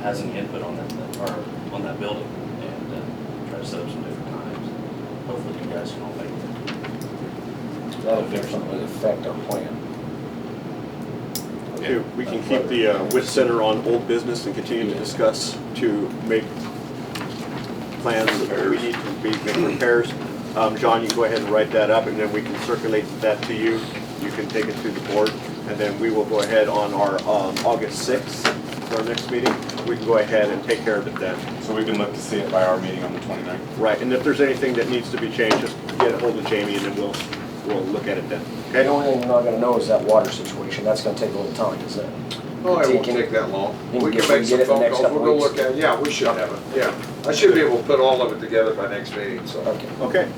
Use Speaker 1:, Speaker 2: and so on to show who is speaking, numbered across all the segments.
Speaker 1: has some input on that, or on that building, and uh, try to set up some different times. Hopefully you guys can all make it.
Speaker 2: That'll definitely affect our plan.
Speaker 3: Hey, We can keep the uh, WIT Center on old business and continue to discuss to make plans that we need to be, make repairs. Um, John, you go ahead and write that up, and then we can circulate that to you. You can take it to the board, and then we will go ahead on our um, August 6th, for our next meeting. We can go ahead and take care of it then.
Speaker 4: So we can look to see it by our meeting on the 29th.
Speaker 3: Right, and if there's anything that needs to be changed, just get a hold of Jamie, and then we'll, we'll look at it then.
Speaker 2: The
Speaker 3: Okay?
Speaker 2: only thing we're not gonna know is that water situation, that's gonna take a little time, is it?
Speaker 5: Oh, it won't
Speaker 2: Taking-
Speaker 5: take that long.
Speaker 2: Think
Speaker 5: We
Speaker 2: if
Speaker 5: can
Speaker 2: we get
Speaker 5: make some
Speaker 2: it the
Speaker 5: phone
Speaker 2: next
Speaker 5: calls, we're
Speaker 2: couple
Speaker 5: gonna
Speaker 2: weeks?
Speaker 5: look at it, yeah, we should have it, yeah. I should be able to put all of it together by next meeting, so.
Speaker 2: Okay.
Speaker 3: Okay,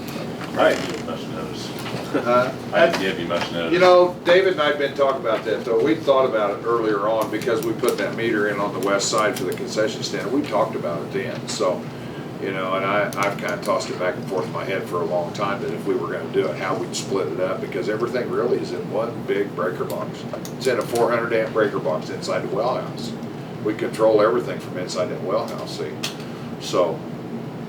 Speaker 3: all right.
Speaker 1: Much notice.
Speaker 5: Uh,
Speaker 4: I didn't give you much notice.
Speaker 5: You know, David and I have been talking about that, though, we thought about it earlier on, because we put that meter in on the west side for the concession stand, we talked about it then, so. You know, and I, I've kinda tossed it back and forth in my head for a long time, that if we were gonna do it, how we'd split it up, because everything really is in one big breaker box. It's in a four hundred amp breaker box inside the wellhouse. We control everything from inside that wellhouse, see? So,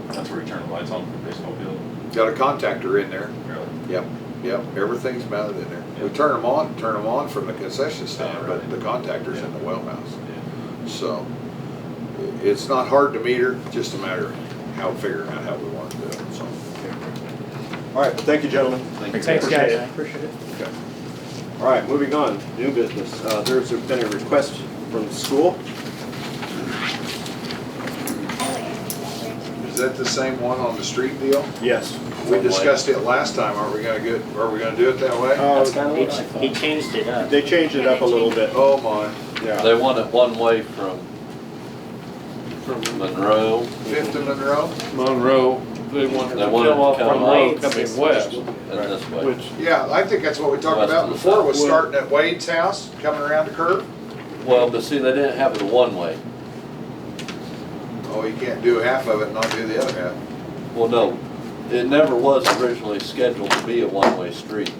Speaker 4: That's where we turn the lights on for the baseball field,
Speaker 5: got a contactor in there,
Speaker 4: really.
Speaker 5: Yep, yep, everything's mounted in there. We turn them on, turn them on from the
Speaker 4: Oh,
Speaker 5: concession stand, but the contactor's in the well house. So i- it's not hard to meter, just a matter of how, figuring out how we want to do it, so.
Speaker 3: All right, well, thank you, gentlemen.
Speaker 6: Thanks, guys.
Speaker 3: Appreciate
Speaker 6: I appreciate it.
Speaker 3: Okay. All right, moving on, new business. Uh, There's been a request from the school.
Speaker 5: Is that the same one on the street deal?
Speaker 3: Yes.
Speaker 5: We discussed it last time, are we gonna get, are we gonna do it that way?
Speaker 3: That's
Speaker 2: kinda
Speaker 7: He ch- He changed it up.
Speaker 3: uh, They changed it up a little bit.
Speaker 5: Oh my,
Speaker 3: Yeah.
Speaker 8: They want it one way from Monroe.
Speaker 5: Fifth and Monroe?
Speaker 9: Monroe, they wanted
Speaker 8: They
Speaker 9: to
Speaker 8: wanted
Speaker 9: kill
Speaker 8: to
Speaker 9: off
Speaker 8: come
Speaker 9: Monroe
Speaker 8: up.
Speaker 9: coming west,
Speaker 8: And this way.
Speaker 9: which,
Speaker 5: Yeah, I think that's what we talked about before, was starting at Wade's house, coming around the curve.
Speaker 8: Well, but see, they didn't have it a one-way.
Speaker 5: Oh, you can't do half of it and not do the other half.
Speaker 8: Well, no, it never was originally scheduled to be a one-way street.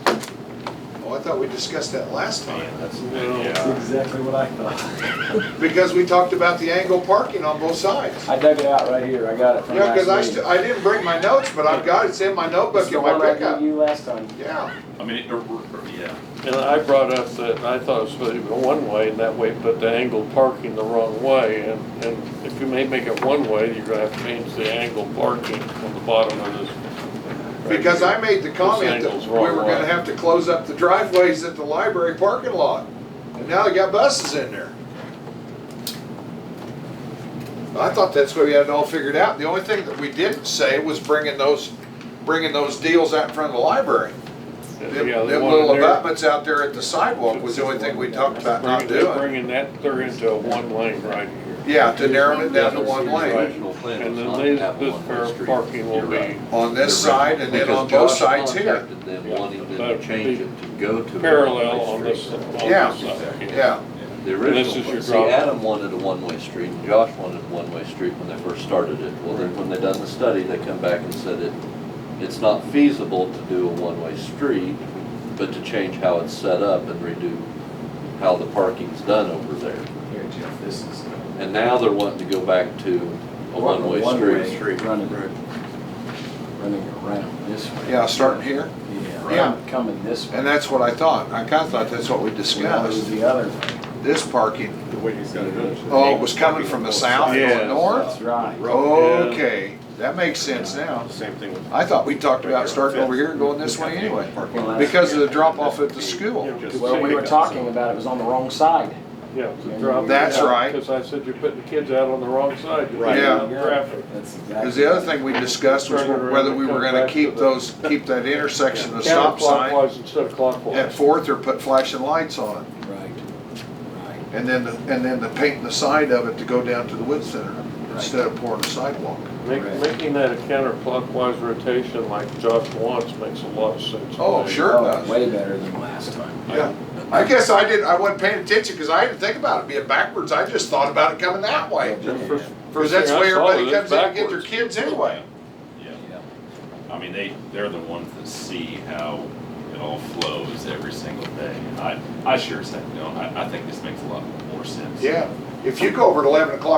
Speaker 5: Oh, I thought we discussed that last time,
Speaker 1: Man, that's,
Speaker 9: yeah.
Speaker 2: exactly what I thought.
Speaker 5: because we talked about the angle parking on both sides.
Speaker 2: I dug it out right here, I got it from
Speaker 5: Yeah, because I,
Speaker 2: last week.
Speaker 5: st- I didn't bring my notes, but I've got it, it's in my
Speaker 2: It's
Speaker 5: notebook
Speaker 2: the
Speaker 5: in my
Speaker 2: one I gave
Speaker 5: pickup.
Speaker 2: you last time.
Speaker 5: Yeah,
Speaker 4: I mean, it- or- or- or- yeah.
Speaker 9: And I brought up that I thought it was supposed to be one-way, and that way put the angle parking the wrong way, and, and if you may make it one-way, you're gonna have to change the angle parking on the bottom of this. right
Speaker 5: because I
Speaker 9: here.
Speaker 5: made the comment that
Speaker 9: angle's
Speaker 5: we
Speaker 9: wrong
Speaker 5: were gonna
Speaker 9: way.
Speaker 5: have to close up the driveways at the library parking lot, and now they got buses in there. I thought that's what we had it all figured out, the only thing that we didn't say was bringing those, bringing those deals out in front of the library. Them
Speaker 9: Yeah, they
Speaker 5: them
Speaker 9: wanted
Speaker 5: little
Speaker 9: their-
Speaker 5: abutments out there at the sidewalk was the only thing we talked about not
Speaker 9: bringing- they're
Speaker 5: doing.
Speaker 9: Bringing that, they're into a one-lane right here.
Speaker 5: Yeah, to narrow it down to
Speaker 8: That was
Speaker 5: one
Speaker 8: the
Speaker 5: lane
Speaker 8: original plan
Speaker 9: And
Speaker 8: was
Speaker 9: then
Speaker 8: not to
Speaker 9: these,
Speaker 8: have a
Speaker 9: this
Speaker 8: one-way
Speaker 9: pair of
Speaker 8: street.
Speaker 9: parking will
Speaker 8: You're right.
Speaker 9: be
Speaker 5: on this
Speaker 8: You're right.
Speaker 5: side and then
Speaker 8: Because
Speaker 5: on both
Speaker 8: Josh
Speaker 5: sides here.
Speaker 8: contacted them
Speaker 9: Yeah,
Speaker 8: wanting them
Speaker 9: that'd
Speaker 8: to
Speaker 9: be
Speaker 8: change it to go to. a
Speaker 9: parallel
Speaker 8: one-way
Speaker 9: on this,
Speaker 8: street.
Speaker 9: on
Speaker 5: Yeah.
Speaker 9: this side.
Speaker 5: Yeah,
Speaker 8: The
Speaker 9: This is
Speaker 8: original,
Speaker 9: your
Speaker 8: one. see,
Speaker 9: drop.
Speaker 8: Adam wanted a one-way street, and Josh wanted a one-way street when they first started it. Well, then, when they done the study, they come back and said it, it's not feasible to do a one-way street, but to change how it's set up and redo how the parking's done over there.
Speaker 2: Here, Jeff, this is.
Speaker 8: And now they're wanting to go back to a one-way street.
Speaker 2: Running, running around this way.
Speaker 5: yeah, starting here,
Speaker 2: Yeah,
Speaker 5: Yeah.
Speaker 2: I'm coming this way.
Speaker 5: and that's what I thought, I kinda thought that's what we
Speaker 2: Now it's
Speaker 5: discussed,
Speaker 2: the other way.
Speaker 5: this parking.
Speaker 3: The way he's gonna do it.
Speaker 5: Oh, it was coming from the south
Speaker 9: Yeah.
Speaker 5: going north?
Speaker 2: That's right.
Speaker 5: Okay, that makes sense now.
Speaker 3: Same thing with.
Speaker 5: I thought we talked about starting over here and going this way anyway, because of the drop off at the school.
Speaker 2: Well, we were talking about it was on the wrong side.
Speaker 9: Yeah, it's a drop.
Speaker 5: That's right.
Speaker 9: Because I said you're putting the kids out on the wrong side. You're
Speaker 3: Right.
Speaker 9: putting
Speaker 5: Yeah.
Speaker 9: them in Traffic.
Speaker 2: That's exactly.
Speaker 5: Because the other thing we discussed was whether we were gonna keep those, keep that intersection, the stop sign
Speaker 9: Counterclockwise instead of
Speaker 5: at
Speaker 9: clockwise.
Speaker 5: Fourth or put flashing lights on it.
Speaker 2: Right, right.
Speaker 5: And then, the- and then the painting the side of it to go down to the wood center instead of pouring a sidewalk.
Speaker 9: Make- Making that a counterclockwise rotation like Josh wants makes a lot of sense. to
Speaker 5: Oh,
Speaker 9: me.
Speaker 5: sure
Speaker 2: Oh,
Speaker 5: does.
Speaker 2: Way better than last time.
Speaker 5: Yeah, I guess I didn't, I wasn't paying attention because I didn't think about it being backwards. I just thought about it coming that way.
Speaker 9: Just first-
Speaker 5: Because
Speaker 9: first
Speaker 5: that's
Speaker 9: thing I
Speaker 5: where
Speaker 9: saw
Speaker 5: everybody
Speaker 9: was
Speaker 5: comes in to get their
Speaker 9: backwards.
Speaker 5: kids anyway.
Speaker 4: Yeah. I mean, they, they're the ones that see how it all flows every single day. And I, I sure as heck don't. I, I think this makes a lot more sense.
Speaker 5: Yeah, if you go over at eleven o'clock